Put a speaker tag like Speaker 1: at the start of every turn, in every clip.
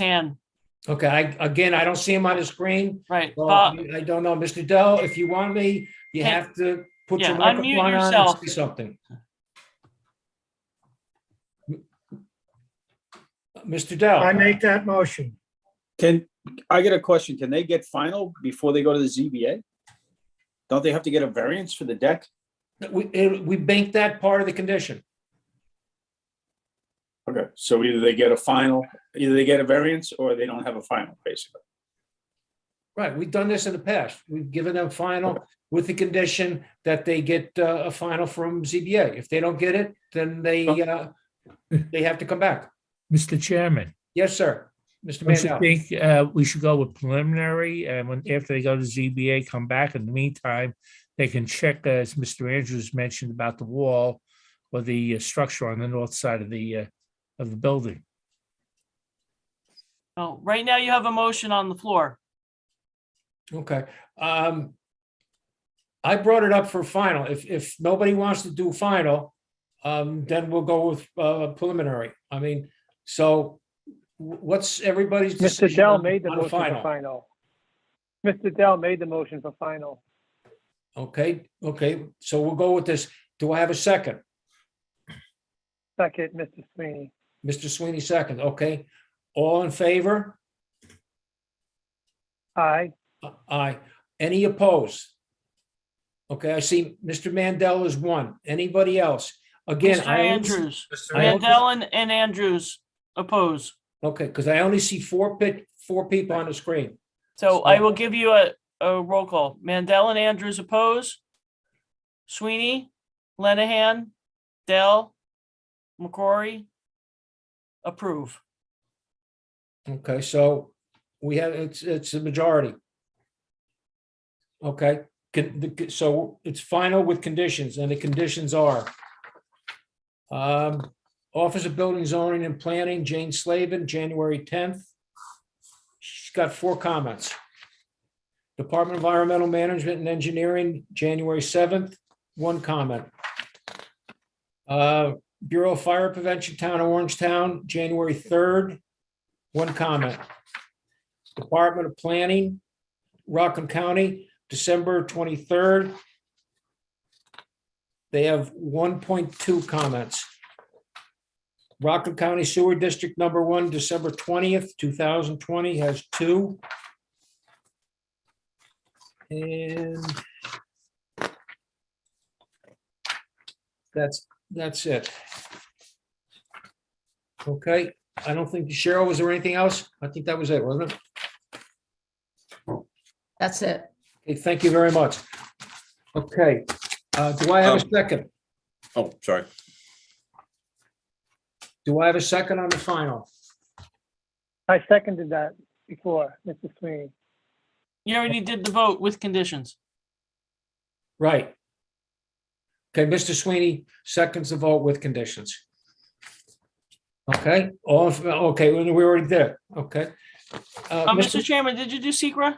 Speaker 1: hand,
Speaker 2: Okay, I, again, I don't see him on the screen.
Speaker 1: right.
Speaker 2: Well,
Speaker 1: Bob,
Speaker 2: I don't know, Mr. Dell, if you want me, you
Speaker 1: Uh, Can-
Speaker 2: have to put your
Speaker 1: Yeah, unmute
Speaker 2: microphone on and
Speaker 1: yourself.
Speaker 2: say something. Mr.
Speaker 3: Oh.
Speaker 2: Dell?
Speaker 4: I make that motion.
Speaker 5: Can, I get a question, can they get final before they go to the ZBA? Don't they have to get a variance for the deck?
Speaker 2: We, it- we banked that part of the condition.
Speaker 5: Okay, so either they get a final, either they get a variance or they don't have a final, basically.
Speaker 2: Right, we've done this in the past. We've given them final with the condition that they get uh, a final from ZBA. If they don't get it, then they, uh, they have to come back.
Speaker 3: Mr. Chairman,
Speaker 2: Yes, sir. Mr.
Speaker 3: don't you
Speaker 2: Mandel?
Speaker 3: think uh, we should go with preliminary and when, after they go to ZBA, come back? In the meantime, they can check, as Mr. Andrews mentioned about the wall or the uh, structure on the north side of the, uh, of the building.
Speaker 1: no, right now you have a motion on the floor.
Speaker 2: Okay, um. I brought it up for final. If, if nobody wants to do final, um, then we'll go with, uh, preliminary. I mean, so. wh- What's everybody's?
Speaker 4: Mr.
Speaker 2: decision
Speaker 4: Dell
Speaker 2: on-
Speaker 4: made the
Speaker 2: on a
Speaker 4: motion for
Speaker 2: final?
Speaker 4: final. Mr. Dell made the motion for final.
Speaker 2: Okay, okay, so we'll go with this. Do I have a second?
Speaker 4: Second, Mr. Sweeney.
Speaker 2: Mr. Sweeney, second, okay. All in favor?
Speaker 4: Aye.
Speaker 2: Aye. Any opposed? Okay, I see Mr. Mandel is one. Anybody else? Again,
Speaker 1: Mr.
Speaker 2: I. only-
Speaker 1: Andrews,
Speaker 2: I only-
Speaker 1: Mandel and and Andrews oppose.
Speaker 2: Okay, because I only see four pit, four people on the screen.
Speaker 1: So I will give you a, a roll call. Mandel and Andrews oppose. Sweeney, Lenahan, Dell, McCrory, approve.
Speaker 2: Okay, so we have, it's, it's a majority. Okay, can, the- so it's final with conditions and the conditions are um, Office of Building Zoning and Planning, Jane Slavin, January tenth. She's got four comments. Department of Environmental Management and Engineering, January seventh, one comment. Uh, Bureau of Fire Prevention, Town of Orange Town, January third, one comment. Department of Planning, Rockland County, December twenty-third. They have one point two comments. Rockland County Sewer District Number One, December twentieth, two thousand twenty, has two. And that's, that's it. Okay, I don't think, Cheryl, was there anything else? I think that was it, wasn't it?
Speaker 6: That's it.
Speaker 2: Okay, thank you very much. Okay, uh, do I have a second?
Speaker 7: Um, Oh, sorry.
Speaker 2: Do I have a second on the final?
Speaker 4: I seconded that before, Mr. Sweeney.
Speaker 1: You already did the vote with conditions.
Speaker 2: Right. Okay, Mr. Sweeney, seconds the vote with conditions. Okay, all, in- okay, we we already did, okay. Uh,
Speaker 1: Uh,
Speaker 2: Mr.
Speaker 1: Mr. Chairman, did you do Secra?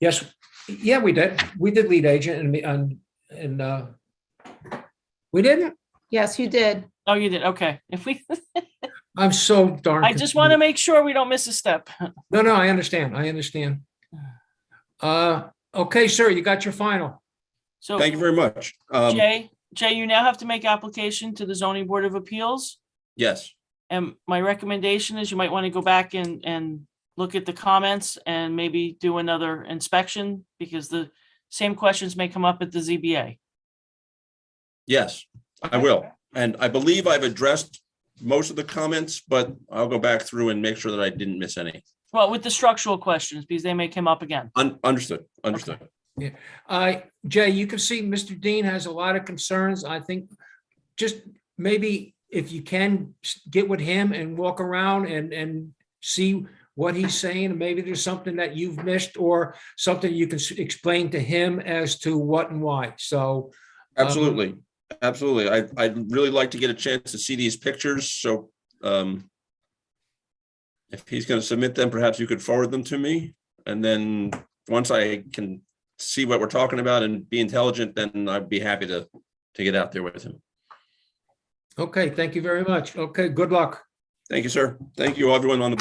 Speaker 2: Yes, yeah, we did. We did lead agent and, me- and, and, uh, we didn't?
Speaker 6: Yes, you did.
Speaker 1: Oh, you did. Okay. If we,
Speaker 2: I'm so darn.
Speaker 1: I just want
Speaker 2: confused.
Speaker 1: to make sure we don't miss a step.
Speaker 2: No, no, I understand. I understand. Uh, okay, sir, you got your final.
Speaker 1: So.
Speaker 7: Thank you very much. Um,
Speaker 1: Jay, Jay, you now have to make application to the zoning board of appeals.
Speaker 7: yes,
Speaker 1: And my recommendation is you might want to go back and, and look at the comments and maybe do another inspection because the same questions may come up at the ZBA.
Speaker 7: yes, I will. And I believe I've addressed most of the comments, but I'll go back through and make sure that I didn't miss any.
Speaker 1: Well, with the structural questions, because they may come up again.
Speaker 7: Un- understood, understood.
Speaker 2: I, Uh, Jay, you can see Mr. Dean has a lot of concerns. I think just maybe if you can s- get with him and walk around and, and see what he's saying, and maybe there's something that you've missed or something you can s- explain to him as to what and why. So,
Speaker 7: Absolutely, absolutely. I, I'd really like to get a chance to see these pictures, so, um, if he's gonna submit them, perhaps you could forward them to me, and then, once I can see what we're talking about and be intelligent, then I'd be happy to, to get out there with him.
Speaker 2: okay, thank you very much. Okay, good luck.
Speaker 7: Thank you, sir. Thank you, everyone on the board.